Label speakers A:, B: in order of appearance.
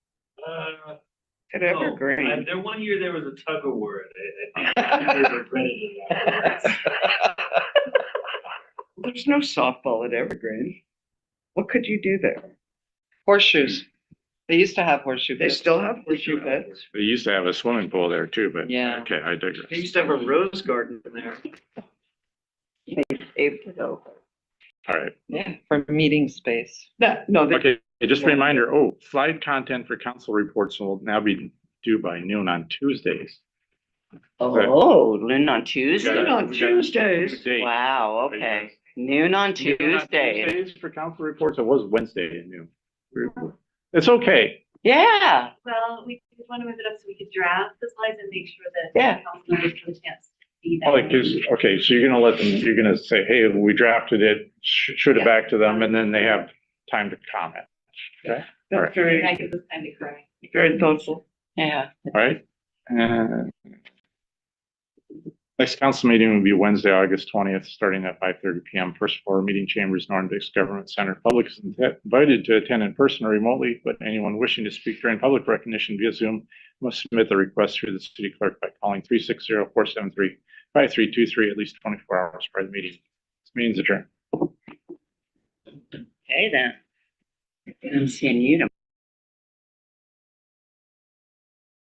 A: Uh,
B: At
A: no. Uh,
B: Evergreen.
A: There, one year there was a tug of war, I, I think, I regretted it afterwards.
B: There's no softball at Evergreen. What could you do there?
C: Horseshoes. They used to have horseshoe
B: They
C: bits.
B: still have horseshoe beds?
D: They used to have a swimming pool there too, but.
C: Yeah.
D: Okay, I
A: They
D: digress.
A: used to have a rose garden there.
B: Paved it over.
D: All right.
C: Yeah, for meeting space.
B: No, no, they-
D: Okay, just a reminder, oh, slide content for council reports will now be due by noon on Tuesdays.
E: Oh, noon on
D: Yeah.
E: Tuesday?
B: Noon on
D: we got-
B: Tuesdays.
D: Date.
E: Wow, okay. Noon on
D: You get it on
E: Tuesday.
D: Tuesdays For council reports, it was Wednesday at noon. It's okay.
E: Yeah,
F: Well, we did want to move it up so we could draft the slides and make sure that.
E: Yeah.
F: council members have a chance to see
D: Oh, it
F: them.
D: gives- okay, so you're gonna let them, you're gonna say, hey, we drafted it, sh- shoot it back to them, and then they have time to comment,
B: That's
F: And that
B: very,
F: gives us time to correct.
B: very thoughtful.
E: yeah.
D: All right? Uh, Next council meeting will be Wednesday, August twentieth, starting at five thirty PM, first floor, meeting chambers, Norndix Government Center. Public is invited to attend in person or remotely, but anyone wishing to speak during public recognition via Zoom must submit the request through the city clerk by calling 360-473-5323 at least twenty-four hours prior to the meeting. This meeting's adjourned.
E: Okay then. I'm seeing you tomorrow.